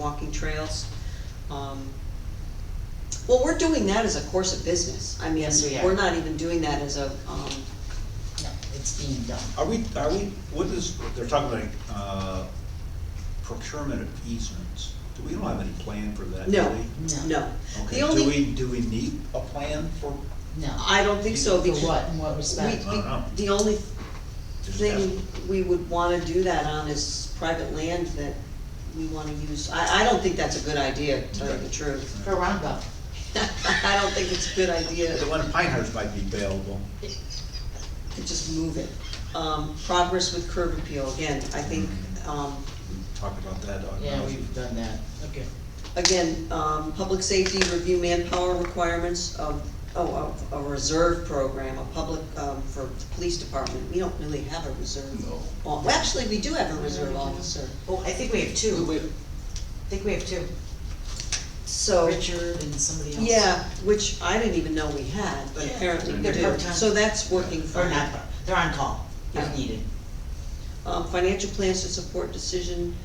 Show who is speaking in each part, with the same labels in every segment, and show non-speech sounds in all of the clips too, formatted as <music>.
Speaker 1: walking trails. Um, Well, we're doing that as a course of business, I mean,
Speaker 2: Yes, we are.
Speaker 1: we're not even doing that as a, um,
Speaker 2: No, it's being done.
Speaker 3: Are we, are we, what is, they're talking about uh, procurement of easements. Do we don't have any plan for that, do we?
Speaker 1: no,
Speaker 2: No.
Speaker 1: no. The
Speaker 3: Okay, do
Speaker 1: only,
Speaker 3: we, do we need a plan for,
Speaker 2: No.
Speaker 1: I don't think so,
Speaker 2: For
Speaker 1: because.
Speaker 2: what, in what
Speaker 1: We,
Speaker 2: respect?
Speaker 3: I don't know.
Speaker 1: we, the only
Speaker 3: Just
Speaker 1: thing we would wanna do that on is private land that we wanna use. I, I don't think that's a good idea, to tell you the truth. <laughs>
Speaker 2: For Roundup.
Speaker 1: I don't think it's a good idea
Speaker 3: the
Speaker 1: to
Speaker 3: one in Pinehurst might be available?
Speaker 1: just move it. Um, progress with curb appeal, again, I think, um,
Speaker 3: We talked about that uh, on.
Speaker 2: Yeah, we've done that. Okay.
Speaker 1: again, um, public safety review manpower requirements of, oh, of a reserve program, a public, um, for the police department. We don't really have a reserve.
Speaker 4: No.
Speaker 1: Well, actually, we do have a reserve officer,
Speaker 5: Well, Oh, I think we have two. I think we have two.
Speaker 1: so.
Speaker 2: Richard and somebody else.
Speaker 1: Yeah, which I didn't even know we had, but
Speaker 2: Yeah.
Speaker 1: apparently we
Speaker 5: They're
Speaker 1: do.
Speaker 5: part-time.
Speaker 1: So that's working for
Speaker 5: Or
Speaker 1: me.
Speaker 5: not, they're on call
Speaker 1: Yeah.
Speaker 5: if needed.
Speaker 1: Um, financial plans to support decision,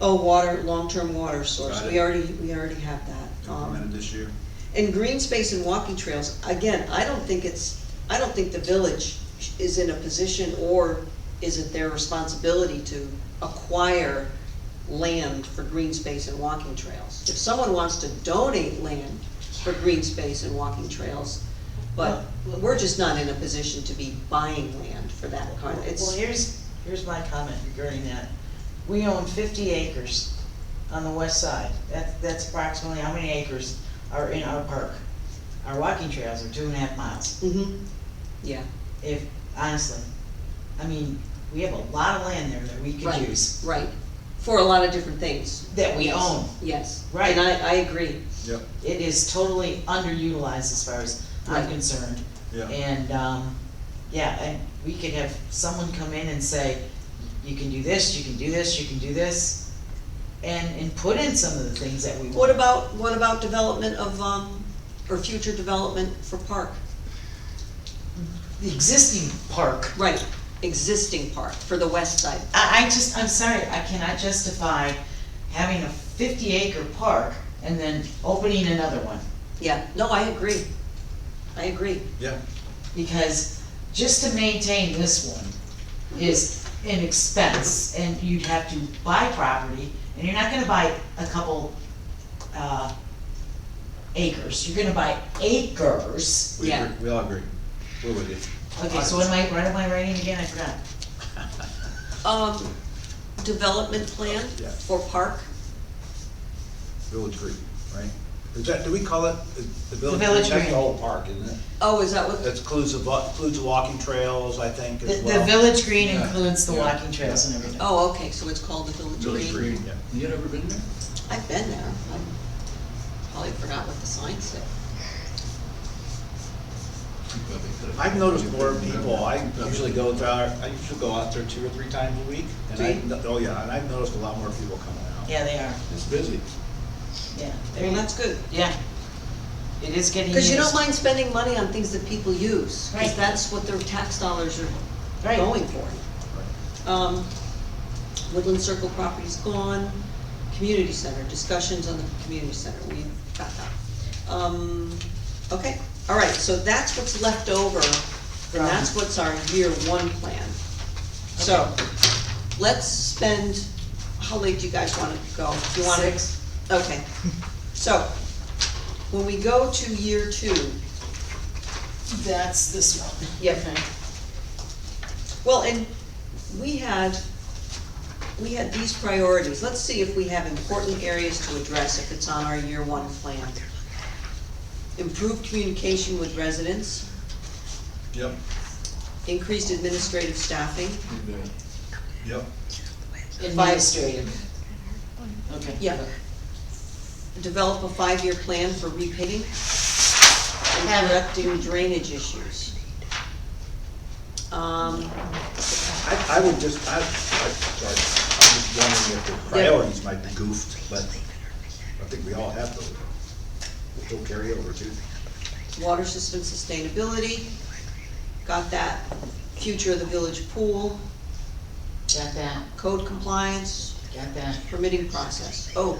Speaker 1: oh, water, long-term water source,
Speaker 3: Got it.
Speaker 1: we already, we already have that.
Speaker 3: Implemented
Speaker 1: Um,
Speaker 3: this year.
Speaker 1: And green space and walking trails, again, I don't think it's, I don't think the village is in a position or is it their responsibility to acquire land for green space and walking trails. If someone wants to donate land for green space and walking trails, but we're just not in a position to be buying land for that kind, of-
Speaker 5: Well,
Speaker 1: it's,
Speaker 5: here's, here's my comment regarding that. We own fifty acres on the west side. That, that's approximately how many acres are in our park. Our walking trails are two and a half miles,
Speaker 1: hmm yeah.
Speaker 5: if, honestly. I mean, we have a lot of land there that we could
Speaker 1: Right.
Speaker 5: use,
Speaker 1: Right, for a lot of different things.
Speaker 5: that we own.
Speaker 1: Yes.
Speaker 5: Right.
Speaker 1: And I, I agree.
Speaker 3: Yep,
Speaker 5: It is totally underutilized as far as I'm
Speaker 1: Right.
Speaker 5: concerned.
Speaker 3: yeah.
Speaker 5: And, um, yeah, and we could have someone come in and say, you can do this, you can do this, you can do this, and, and put in some of the things that we want.
Speaker 1: What about, what about development of, um, or future development for park?
Speaker 5: The existing park.
Speaker 1: Right, existing park for the west side.
Speaker 5: I, I just, I'm sorry, I cannot justify having a fifty acre park and then opening another one.
Speaker 1: Yeah, no, I agree. I agree.
Speaker 3: Yeah,
Speaker 5: Because just to maintain this one is an expense, and you'd have to buy property, and you're not gonna buy a couple, uh, acres, you're gonna buy acres.
Speaker 3: we
Speaker 1: Yeah.
Speaker 3: agree, we all agree. We're with you.
Speaker 5: Okay, so what am I, what am I writing again, I forgot.
Speaker 1: Um, development plan
Speaker 3: Yeah.
Speaker 1: for park?
Speaker 3: Village Green, right? Is that, do we call it the the
Speaker 5: Village
Speaker 3: Village? Green? That's the
Speaker 5: Green.
Speaker 3: whole park, isn't it?
Speaker 1: Oh, is that what,
Speaker 3: That includes the, bu- includes the walking trails, I think,
Speaker 5: The,
Speaker 3: as
Speaker 5: the
Speaker 3: well.
Speaker 5: village green
Speaker 4: Yeah,
Speaker 5: includes the
Speaker 4: yeah,
Speaker 5: walking trails and everything.
Speaker 1: oh, okay, so it's called the Village
Speaker 4: Village
Speaker 1: Green.
Speaker 4: Green,
Speaker 3: yeah.
Speaker 4: you never been there?
Speaker 1: I've been there. I probably forgot what the sign said.
Speaker 3: I've noticed more people, I usually go there, I usually go out there two or three times a week, and I,
Speaker 1: Do
Speaker 3: oh yeah, and I've noticed a lot more people coming out.
Speaker 5: Yeah, they are,
Speaker 4: It's busy.
Speaker 5: yeah.
Speaker 1: Well, that's good.
Speaker 5: Yeah. It is getting used.
Speaker 1: Cause you don't mind spending money on things that people use, cause
Speaker 5: Right.
Speaker 1: that's what their tax dollars are
Speaker 5: Right.
Speaker 1: going for. Um, Woodland Circle property's gone, community center, discussions on the community center, we've got that. Um, okay, all right, so that's what's left over, and that's what's our year one plan. So, let's spend, how late do you guys wanna go? Do you wanna?
Speaker 5: Six.
Speaker 1: Okay, so, when we go to year two,
Speaker 2: That's this one.
Speaker 1: Yep. Well, and we had, we had these priorities, let's see if we have important areas to address if it's on our year one plan. Improved communication with residents,
Speaker 3: Yep,
Speaker 1: increased administrative staffing,
Speaker 3: yep.
Speaker 2: Administrative. Okay.
Speaker 1: yeah. Develop a five-year plan for repaving and
Speaker 2: Have it.
Speaker 1: correcting drainage issues. Um,
Speaker 3: I, I would just, I, I, sorry, I'm just wondering if the priorities might be goofed, but I think we all have those. We'll carry over too.
Speaker 1: water system sustainability, got that, future of the village pool,
Speaker 2: Got that,
Speaker 1: code compliance,
Speaker 2: got that.
Speaker 1: permitting process. Oh,